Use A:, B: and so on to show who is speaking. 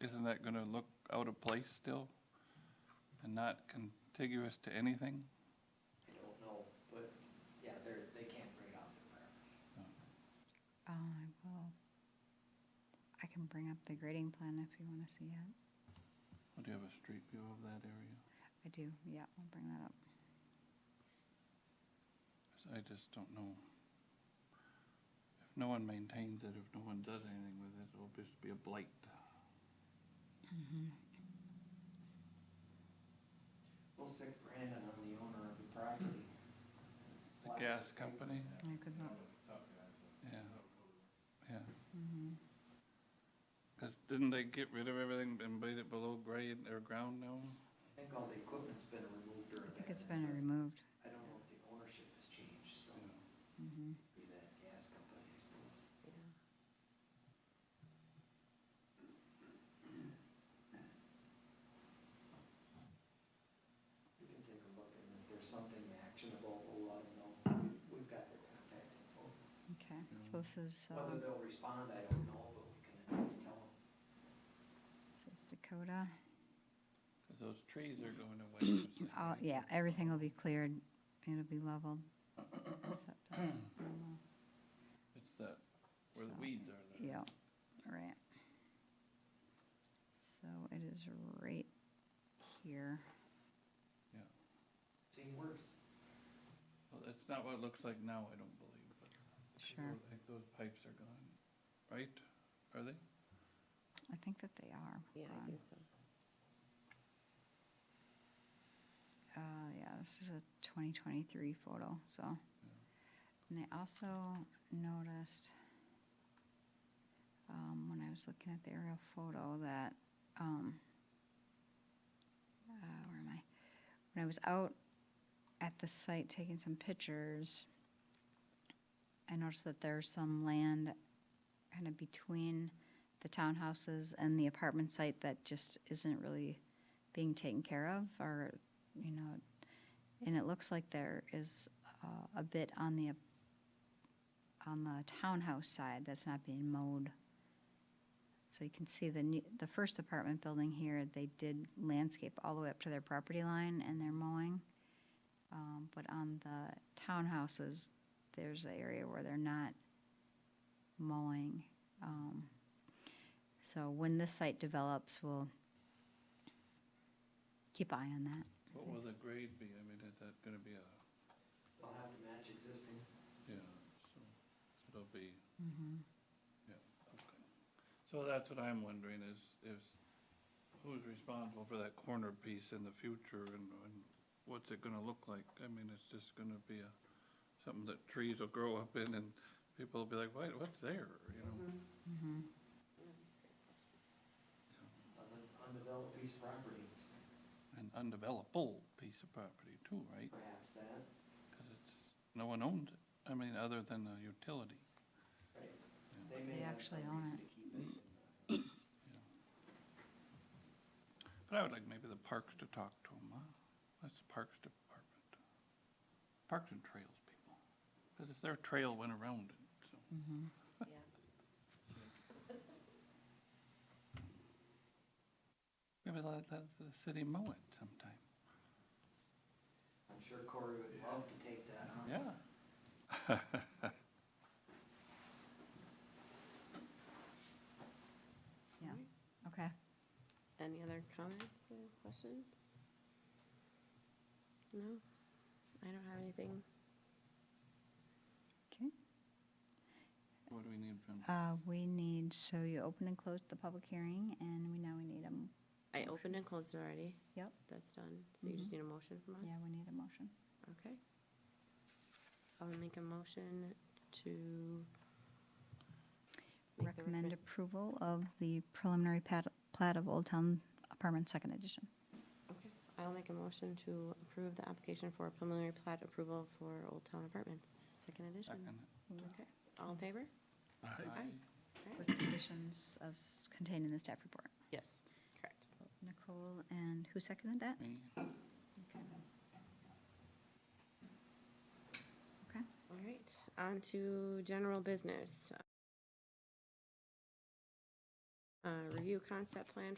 A: that gonna look out of place still? And not contiguous to anything?
B: I don't know, but yeah, they're, they can't bring it off their property.
C: Uh, I will. I can bring up the grading plan if you want to see it.
A: Or do you have a street view of that area?
C: I do, yeah, I'll bring that up.
A: 'Cause I just don't know. If no one maintains it, if no one does anything with it, it'll just be a blight.
B: We'll sick Brandon on the owner of the property.
A: The gas company,
C: I could not.
A: yeah, yeah.
C: mm-hmm.
A: Cause didn't they get rid of everything and made it below grade or ground now?
B: I think all the equipment's been removed
C: I
B: during that.
C: think it's been removed.
B: I don't know if the ownership has changed, so
C: Mm-hmm,
B: be that gas company, I suppose. We can take a look and if there's something actionable, we'll let them know. We- We've got their contact info.
C: Okay, so this is, uh,
B: Whether they'll respond, I don't know, but we can at least tell them.
C: this is Dakota.
A: Cause those trees are going away. or something,
C: Oh,
A: right?
C: yeah, everything will be cleared. It'll be leveled. except, uh, normal.
A: It's that, where the
C: So,
A: weeds are there.
C: Yeah, right. So it is right here.
B: Seen worse.
A: Well, that's not what it looks like now, I don't believe, but.
C: Sure.
A: I think those pipes are gone, right? Are they?
C: I think that they are.
D: Yeah,
C: gone.
D: I think so.
C: uh, yeah, this is a 2023 photo, so. And I also noticed, um, when I was looking at the aerial photo that, um, uh, where am I? When I was out at the site taking some pictures, I noticed that there's some land kind of between the townhouses and the apartment site that just isn't really being taken care of or you know, and it looks like there is uh, a bit on the on the townhouse side that's not being mowed. So you can see the new, the first apartment building here. They did landscape all the way up to their property line, and they're mowing. Um, but on the townhouses, there's an area where they're not mowing. Um, so when this site develops, we'll keep eye on that.
A: What will the grade be? I mean, is that gonna be a,
B: They'll have to match existing.
A: yeah, so it'll be,
C: Mm-hmm.
A: okay. So that's what I'm wondering is, is who's responsible for that corner piece in the future and, and what's it gonna look like? I mean, it's just gonna be a, something that trees will grow up in and people will be like, what, what's there, you know?
C: Mm-hmm.
B: on an undeveloped piece of property,
A: An undevelopable piece of property too, right?
B: perhaps that,
A: Cause it's, no one owns it, I mean, other than the utility.
B: right? They may
C: They
B: have
C: actually
B: some
C: own
B: reason
C: it.
B: to keep it.
A: But I would like maybe the parks to talk to them, huh? That's the Parks Department. Parks and Trails people. Because if their trail went around it, so.
C: mm-hmm.
D: Yeah.
A: Maybe let, let the city mow it sometime.
B: I'm sure Corey would love to take that
A: Yeah.
B: on.
C: Okay.
D: Any other comments or questions? No? I don't have anything.
C: Okay.
A: What do we need from,
C: Uh, we need, so you opened and closed the public hearing and we now we need a, m-
D: I opened and closed it already.
C: Yep. Mm-hmm.
D: That's done. So you just need a motion from us?
C: yeah, we need a motion.
D: Okay. I'll make a motion to. make the
C: Recommend approval of the preliminary pat- plat of Old Town Apartment Second Edition.
D: Okay. I'll make a motion to approve the application for preliminary plat approval for Old Town Apartments, second edition.
A: second?
D: Okay. All in favor? Aye.
C: With conditions as contained in the staff report.
D: Yes. Correct.
C: Nicole, and who seconded that?
A: Me?
C: Okay.
D: All right, on to general business. Uh, review concept plan